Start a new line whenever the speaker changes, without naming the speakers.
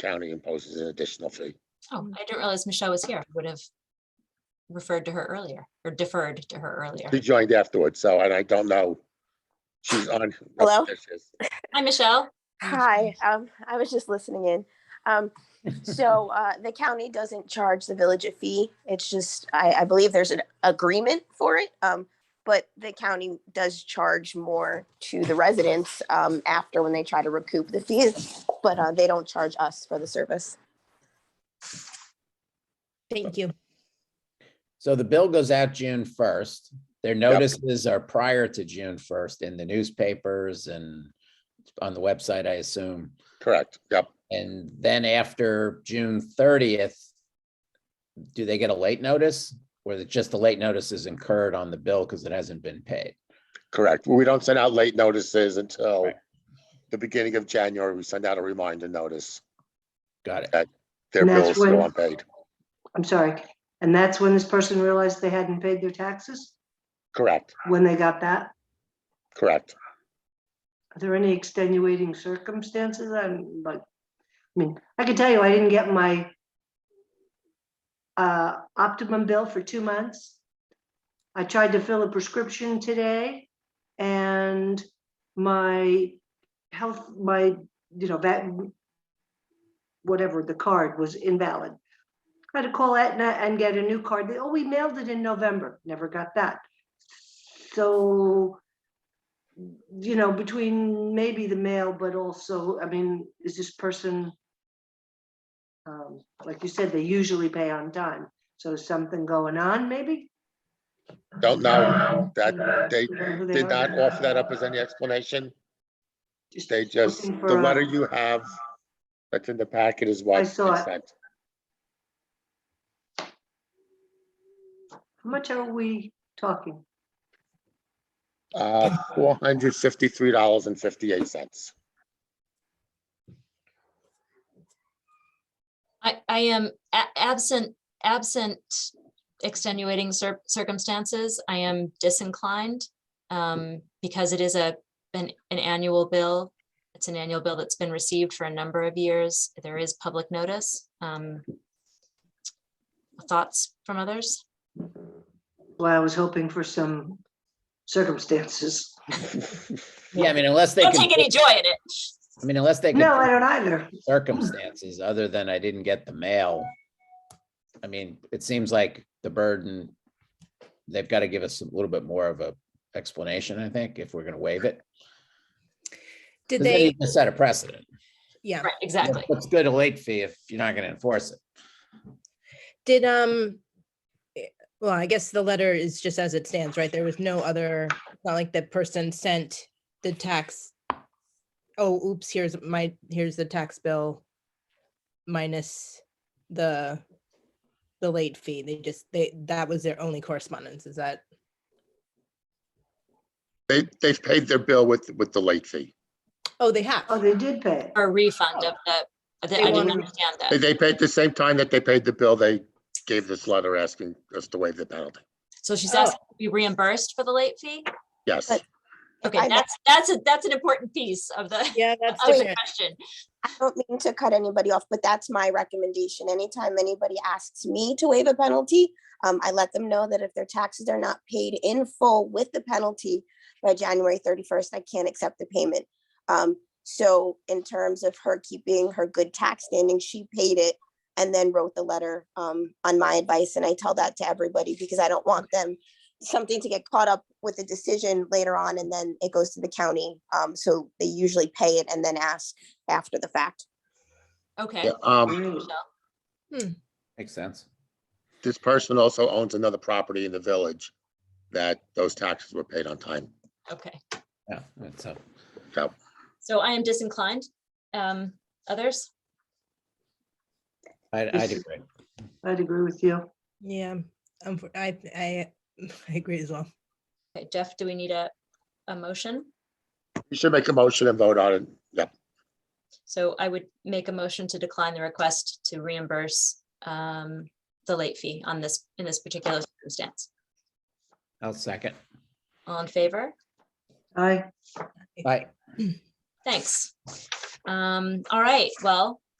county imposes an additional fee.
Oh, I didn't realize Michelle was here. I Would have referred to her earlier or deferred to her earlier.
She joined afterwards, so, and I don't know. She's on.
Hello?
Hi, Michelle.
Hi, um, I was just listening in. Um, so, uh, the county doesn't charge the village a fee. It's just, I, I believe there's an agreement for it. Um, but the county does charge more to the residents, um, after when they try to recoup the fees, but, uh, they don't charge us for the service.
Thank you.
So the bill goes out June first. Their notices are prior to June first in the newspapers and on the website, I assume.
Correct, yep.
And then after June thirtieth, do they get a late notice? Or is it just the late notice is incurred on the bill because it hasn't been paid?
Correct. We don't send out late notices until
Right.
the beginning of January. We send out a reminder notice.
Got it.
Their
And that's
bill's still
when-
unpaid.
I'm sorry. And that's when this person realized they hadn't paid their taxes,
Correct,
when they got that?
correct.
Are there any extenuating circumstances? I'm like, I mean, I can tell you, I didn't get my uh, optimum bill for two months. I tried to fill a prescription today and my health, my, you know, that whatever, the card was invalid. I had to call Aetna and get a new card. They, oh, we mailed it in November. Never got that. So you know, between maybe the mail, but also, I mean, is this person? um, Like you said, they usually pay on time, so is something going on, maybe?
Don't know that they
You know who they
did
are?
not offer that up as any explanation.
Just
They just,
looking
the
for uh, a-
letter you have that's in the packet is what.
I saw
they
it.
sent.
How much are we talking?
Uh, four hundred fifty-three dollars and fifty-eight cents.
I, I am a- absent, absent extenuating cir- circumstances. I am disinclined um, because it is a, an, an annual bill. It's an annual bill that's been received for a number of years. There is public notice. Um, Thoughts from others?
Well, I was hoping for some circumstances.
Yeah, I mean, unless they
Don't
can,
take any
I
joy in it.
mean, unless they
No, I
can
don't either.
circumstances other than I didn't get the mail. I mean, it seems like the burden, they've got to give us a little bit more of a explanation, I think, if we're going to waive it.
Did
'Cause
they,
need to Set a precedent.
yeah,
Right, exactly.
What's good a late fee if you're not going to enforce it?
did, um, eh, well, I guess the letter is just as it stands, right? There was no other, it's not like the person sent the tax. Oh, oops, here's my, here's the tax bill minus the, the late fee. They just, they, that was their only correspondence. Is that,
They, they've paid their bill with, with the late fee.
oh, they have.
Oh, they did pay it.
Or a refund of the, of the- I didn't
wanted-
understand
They-
that.
They paid the same time that they paid the bill, they gave this letter asking us to waive the penalty.
So she's
Oh.
asking to be reimbursed for the late fee?
Yes,
But-
Okay,
I-
that's, that's, a that's an important piece of the,
Yeah, that's
of the
different.
question.
I don't mean to cut anybody off, but that's my recommendation. Anytime anybody asks me to waive a penalty, um, I let them know that if their taxes are not paid in full with the penalty by January thirty-first, I can't accept the payment. Um, so in terms of her keeping her good tax standing, she paid it and then wrote the letter, um, on my advice, and I tell that to everybody because I don't want them something to get caught up with a decision later on and then it goes to the county. Um, so they usually pay it and then ask after the fact.
Okay.
Yeah, um,
Wow.
Michelle.
Makes sense.
this person also owns another property in the village that those taxes were paid on time.
Okay,
Yeah, that's uh, a-
So
so I am disinclined. Um, others?
I, I
This is-
agree.
I'd agree with you.
Yeah, um, I, I, I agree as well.
Okay, Jeff, do we need a, a motion?
you should make a motion and vote on it. Yep,
So I would make a motion to decline the request to reimburse um, the late fee on this, in this particular circumstance.
I'll second.
All in favor?
I,
Bye.
Thanks. Um, all right, well,